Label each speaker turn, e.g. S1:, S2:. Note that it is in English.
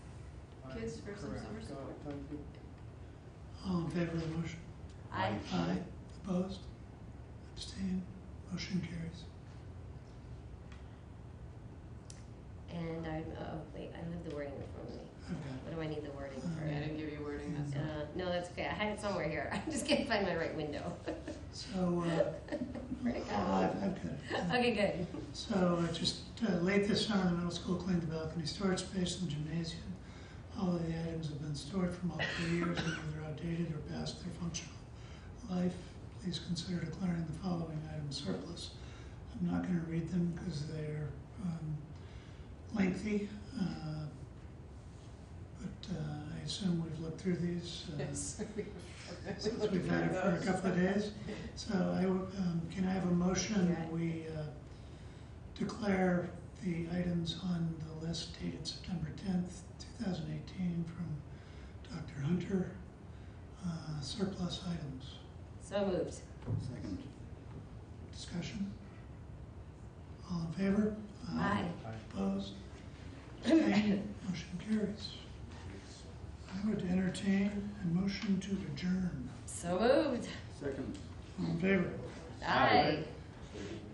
S1: kids for some
S2: Correct.
S1: summer
S2: Got it.
S1: support.
S2: Thank you.
S3: All in favor of the motion?
S1: I,
S3: Aye. Opposed? Abstained? Motion carries.
S4: And I'm, oh, wait, I have the wording in front of me.
S3: I've got
S4: What do I need the wording for?
S1: I didn't give you wording, that's all.
S4: Uh, no, that's okay, I had it somewhere here, I just can't find my right window.
S3: it. So, uh,
S4: Where'd it go?
S3: I've, I've got it. Yeah.
S4: Okay, good.
S3: So uh, just uh, late this summer, the middle school cleaned the balcony storage space in the gymnasium. All of the items have been stored for multiple years and either outdated or past their functional life. Please consider declaring the following items surplus. I'm not going to read them because they're um, lengthy, uh, but uh, I assume we've looked through these. uh,
S1: Yes.
S3: since we've had it for a couple of days. So I, would, um, can I have a motion that we, uh, declare the items on the list dated September tenth, two thousand eighteen from Dr. Hunter, uh, surplus items.
S4: So moved.
S5: Second.
S3: Discussion? All in favor?
S4: Aye.
S3: Opposed? Abstained? Motion carries. I would entertain a motion to adjourn.
S4: So moved.
S5: Second.
S3: All in favor?
S4: Aye.